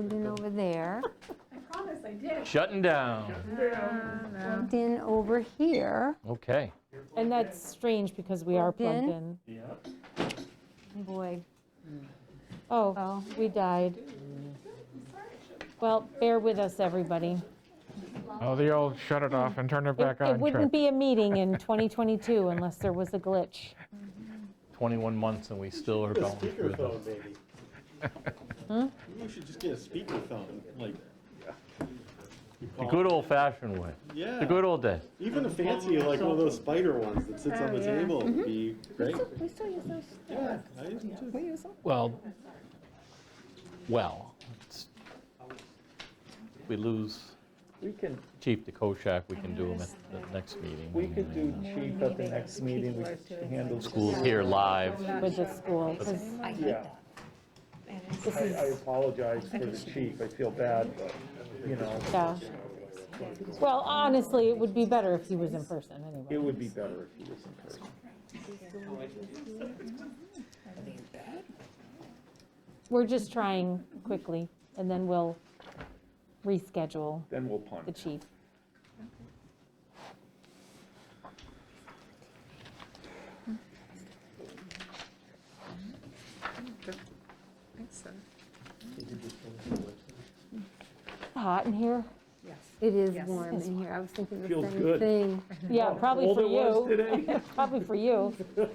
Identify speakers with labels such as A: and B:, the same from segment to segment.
A: Moved in over there,
B: Uh-huh.
C: I promise I did.
D: Shutting down.
A: plugged in over here.
D: Okay.
B: And that's strange because we are
A: Plugged
B: plugged
A: in.
B: in.
A: Boy,
B: Oh,
A: Oh.
B: we died. Well, bear with us, everybody.
E: Oh, the old shut
F: Hmm.
E: it off and turn it
B: It
E: back
B: it
E: on
B: wouldn't
E: trick.
B: be a meeting in 2022 unless there was a glitch.
D: 21 months and we still are
F: A
D: going through this.
F: speakerphone, maybe. Maybe we should just get a speakerphone, like. you
D: The
F: call-
D: good old fashioned way. The
F: Yeah,
D: good old days.
F: even a fancy, like one of those spider ones that sits on the
B: Oh,
F: table would be great.
G: We still use those.
F: Yeah, I used to
G: We use them.
D: Well, well, it's- we lose
H: We can,
D: Chief to Koschak, we can do him at the next meeting.
H: we could do chief at the next meeting, we could handle.
D: Schools here live.
B: with the school, 'cause
G: I hate
H: Yeah,
G: that.
H: I, I apologize for the chief, I feel bad, but, you know,
B: yeah. Well, honestly, it would be better if he was in person
H: it
B: anyway.
H: would be better if he was in person.
B: We're just trying quickly, and then we'll reschedule
H: Then we'll
B: the
H: punt.
B: chief. Hot in here?
A: it is
G: Yes.
A: warm in here. I was thinking the
H: Feels
A: same
H: good.
A: thing.
B: Yeah, probably
H: Old
B: for
H: it was
B: you.
H: today.
B: Probably for you.
A: Looks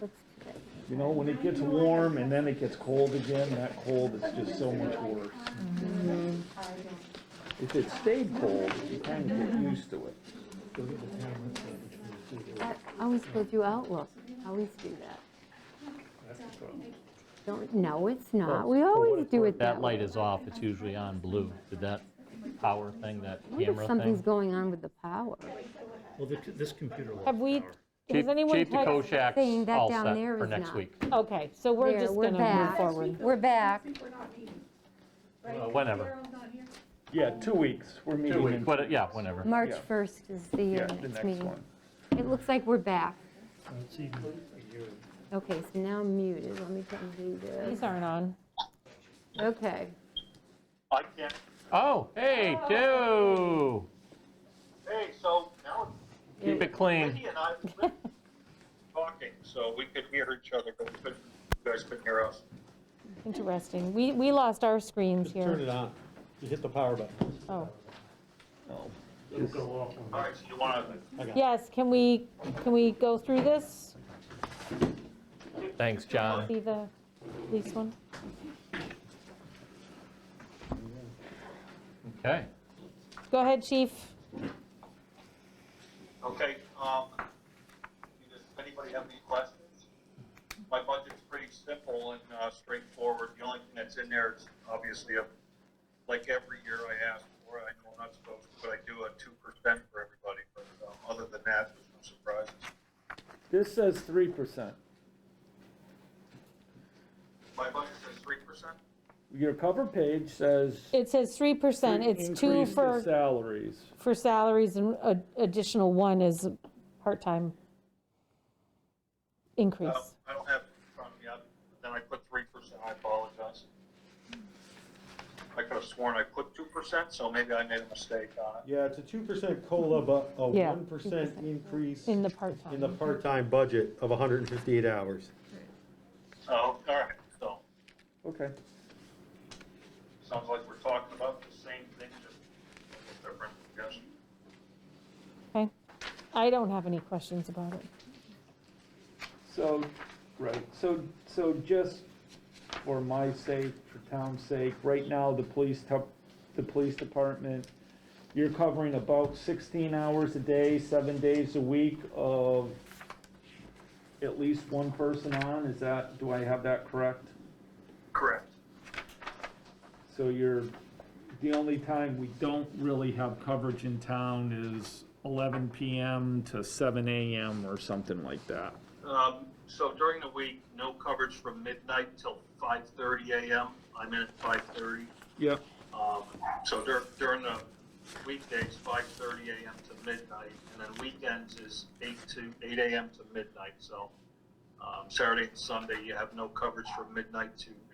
A: good.
H: You know, when it gets warm and then it gets cold again, that cold is just so much worse. If it stayed cold, you kind of get used to it.
A: I I always go through Outlook, I always do that. Don't, no, it's not, we always do it that
D: That
A: way.
D: light is off, it's usually on blue. Did that power thing, that
A: I wonder if
D: camera
A: something's
D: thing?
A: going on with the power.
I: Well, the- this computer lost
B: Have we,
I: power.
B: has anyone?
D: Chief to
B: had-
A: Saying
D: Koschak's
A: that
D: all
A: down
D: set
A: there
D: for
A: is
D: next
A: not.
D: week,
B: Okay, so we're
A: There,
B: just
A: we're
B: going to move
A: back.
B: forward.
A: We're back,
C: Next week we're not meeting.
D: Uh,
C: right?
D: whenever.
C: Carol's not here.
H: Yeah, two weeks, we're meeting in.
D: But, uh, yeah, whenever.
A: March
H: Yeah.
A: 1st is the
H: Yeah,
A: uh,
H: the
A: next
H: next
A: meeting.
H: one.
A: It looks like we're back.
I: It's even a year.
A: Okay, so now I'm muted, let me undo this.
B: These aren't on.
A: Okay,
J: I can't,
D: Oh, hey, two.
J: hey, so now
D: Keep it clean.
J: Wendy and I were talking, so we could hear each other, but we couldn't- you guys couldn't hear us.
B: Interesting. We, we lost our screens
F: just turn
B: here.
F: it on, you hit the power button.
B: Oh,
J: All right, so you want to,
B: yes, can we, can we go through this?
D: Thanks, John.
B: See the least one?
D: Okay.
B: Go ahead, chief.
J: okay, um, does anybody have any questions? My budget's pretty simple and uh, straightforward, the only thing that's in there is obviously, a- like every year I ask for, I know I'm not supposed to, but I do a two percent for everybody, but uh, other than that, there's no surprises.
H: This says three percent.
J: My budget says three percent?
H: Your cover page says.
B: It says 3%. It's two
H: increase the
B: for,
H: Salaries.
B: for salaries and a- additional one is part-time
J: Uh,
B: increase.
F: Oh.
J: I don't have it in front of me, I- then I put three percent, I apologize. I could have sworn I put two percent, so maybe I made a mistake on it.
F: Yeah, it's a two percent COLA, but a
B: Yeah,
F: one percent increase
B: In the
F: in
B: part-time.
F: the part-time budget of hundred and fifty-eight hours.
J: So, all right, so,
H: Okay.
J: sounds like we're talking about the same thing, just a little different, I guess.
B: Okay. I don't have any questions about it.
H: So, right, so, so just for my sake, for town's sake, right now, the police, tup- the police department, you're covering about sixteen hours a day, seven days a week of at least one person on, is that, do I have that correct?
J: Correct.
H: So you're, the only time we don't really have coverage in town is eleven PM to seven AM or something like that.
J: Um, so during the week, no coverage from midnight till five thirty AM, I'm in at five thirty.
H: Yep.
J: Um, So dur- during the weekdays, 5:30 AM to midnight, and then weekends is 8 to 8 AM to midnight. So um, Saturday and Sunday, you have no coverage from midnight to